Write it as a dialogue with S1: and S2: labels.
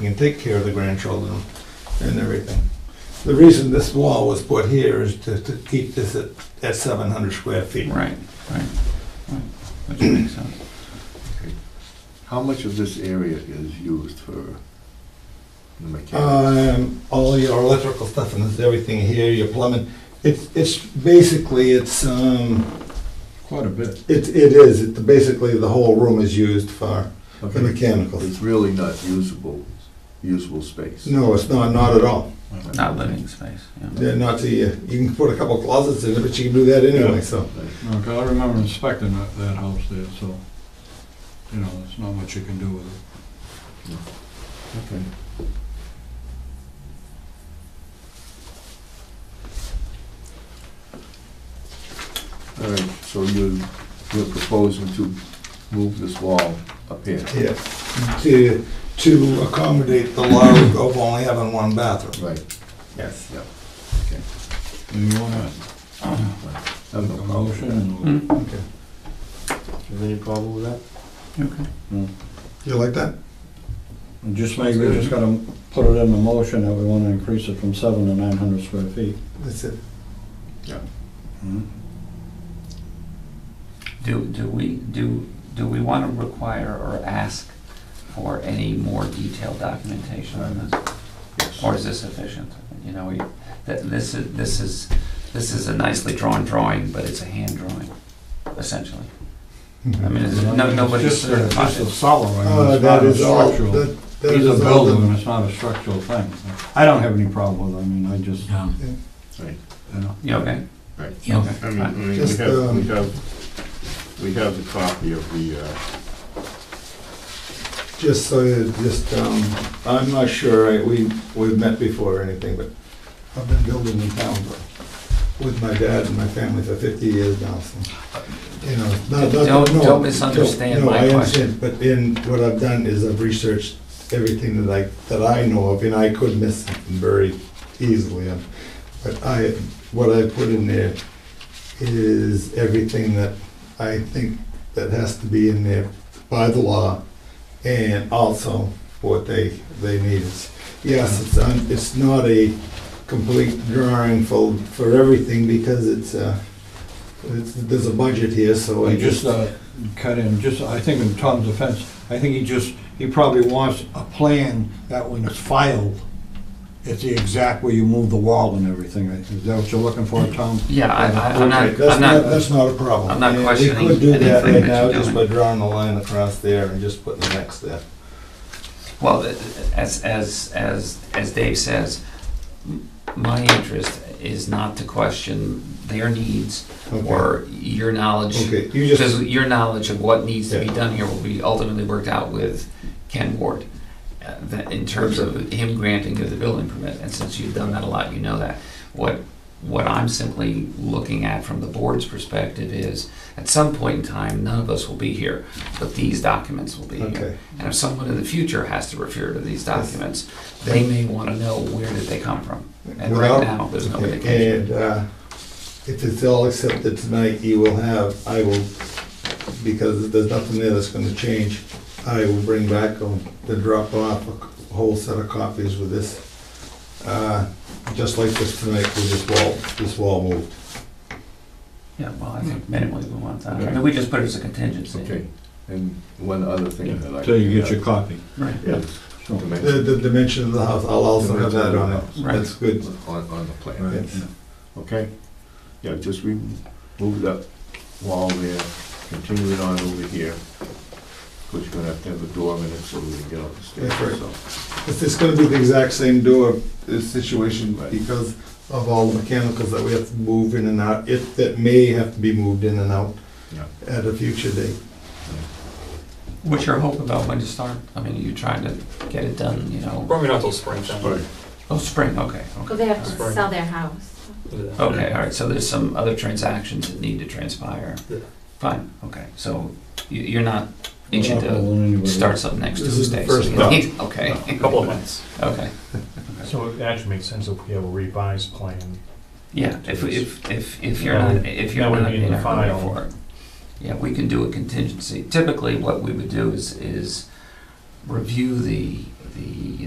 S1: can take care of the grandchildren and everything. The reason this wall was put here is to, to keep this at, at seven hundred square feet.
S2: Right, right, right, which makes sense.
S3: How much of this area is used for
S1: Uh,
S3: the mechanics?
S1: Um, all your electrical stuff and this, everything here, your plumbing, it's, it's basically, it's, um,
S2: Quite a bit.
S1: it, it is, it, basically the whole room is used for the
S3: Okay.
S1: mechanicals.
S3: It's really not usable, usable space.
S1: No, it's not, not at all.
S2: Not living space, yeah.
S1: They're not the, uh, you can put a couple closets in it, but you can do that anyway, so.
S4: No, 'cause I remember inspecting that, that house there, so, you know, there's not much you can do with it.
S3: Okay. All right, so you, you're proposing to move this wall up here?
S1: Yeah, to, to accommodate the law of only having one bathroom.
S3: Right,
S1: Yes.
S4: Do you wanna
S3: I have
S4: make
S3: no
S4: a
S3: problem.
S4: motion and
S2: Hmm,
S1: Okay.
S3: Is there any problem with that?
S2: you okay?
S1: You like that?
S4: we'll- just maybe we just gotta put it in the motion that we wanna increase it from seven to nine hundred square feet?
S1: That's it.
S4: Mm-hmm.
S2: Do, do we, do, do we want to require or ask for any more detailed documentation on this? Or is this sufficient? You know, we, that, this is, this is, this is a nicely drawn drawing, but it's a hand drawing, essentially. I mean, it's, no, nobody's
S4: It's just a-
S2: certified.
S4: It's a solid, I mean,
S1: Uh,
S4: it's not
S1: that
S4: a
S1: is all,
S4: structural.
S1: that, that
S4: He's a
S1: is all.
S4: builder, and
S1: the-
S4: it's not a structural thing. I don't have any problem with it, I mean, I just,
S5: No.
S3: Right.
S4: you know.
S2: You okay?
S6: Right.
S5: Yeah.
S2: Okay.
S6: I mean, I mean, we
S1: Just,
S6: have, we
S1: um,
S6: have, we have the copy of the, uh,
S1: Just so, you- just, um, I'm not sure, I- we, we've met before or anything, but I've been building in town for- with my dad and my family for fifty years now, so, you know. not- not-
S2: Don't-
S1: no,
S2: don't misunderstand
S1: no,
S2: my
S1: I
S2: question.
S1: understand, But in, what I've done is I've researched everything that I, that I know of, and I could miss something very easily. um, But I, what I put in there is everything that I think that has to be in there by the law and also what they, they need. It's- Yes, it's, un- it's not a complete drawing for, for everything because it's, uh, it's, there's a budget here, so I
S4: I just
S1: just.
S4: uh, cut in, just, I think in Tom's offense, I think he just, he probably wants a plan that when it's filed, it's the exact way you move the wall and everything. Is that what you're looking for, Tom?
S2: Yeah, I, I, I'm
S1: Okay,
S2: not,
S1: That's
S2: I'm
S1: not,
S2: not,
S1: that's not a problem.
S2: I'm not
S1: And
S2: questioning
S1: We could do that
S2: anything
S1: right
S2: that
S1: now,
S2: you're
S1: just by
S2: doing.
S1: drawing a line across there and just putting the next there.
S2: well, th- as, as, as, as Dave says, m- my interest is not to question their needs
S1: Okay.
S2: or your knowledge
S1: Okay, you
S2: Because
S1: just,
S2: your knowledge of what needs to be
S1: Yeah.
S2: done here will be ultimately worked out with Ken Ward, uh, that in terms of him granting you the building permit, and since you've done that a lot, you know that. What, what I'm simply looking at from the board's perspective is, at some point in time, none of us will be here, but these documents will be here.
S1: okay,
S2: And if someone in the future has to refer to these documents, they may want to know where did they come from. And
S1: Well,
S2: right now, there's no indication.
S1: and, uh, if it's all accepted tonight, you will have, I will, because there's nothing there that's gonna change, I will bring back on, the drop off a whole set of copies with this, uh, just like this tonight, with this wall, this wall moved.
S2: Yeah, well, I think minimally we want that. I mean, we just put it as a contingency.
S3: Okay, and one other thing that I.
S4: Till you get your copy.
S2: Right.
S3: Yes.
S4: So-
S1: The, the dimension of the house, I'll also have that on it,
S2: Right.
S1: that's good.
S3: On, on the plan.
S1: Right.
S3: Okay? Yeah, just remove that wall there, continue it on over here. Cause you're gonna have to have a door in it so we can get up the
S1: That's right.
S3: stairs, so.
S1: It's, it's gonna be the exact same door uh, situation because of all the mechanicals that we have to move in and out, if, that may have to be moved in and out
S3: Yeah.
S1: at a future date.
S2: What's your hope about when to start? I mean, are you trying to get it done, you know?
S7: Probably not till spring
S3: Right.
S7: time.
S2: Oh, spring, okay,
S8: Well,
S2: okay.
S8: they have to
S7: Right.
S8: sell their house.
S2: Okay, all right, so there's some other transactions that need to transpire.
S7: Yeah.
S2: Fine, okay, so you- you're not itching
S4: Not
S2: to
S4: going anywhere.
S2: start something next
S1: This is the
S2: Tuesday? so
S1: first
S2: you
S1: step.
S2: need- Okay,
S7: A couple of months.
S2: okay,
S5: So it actually makes sense if we have a revised plan.
S2: yeah, if, if, if, if you're
S5: That
S2: not,
S5: would-
S2: if you're
S5: that would
S2: not
S5: be in
S2: in
S5: the
S2: a hurry
S5: file.
S2: for it. Yeah, we can do a contingency. Typically, what we would do is, is review the, the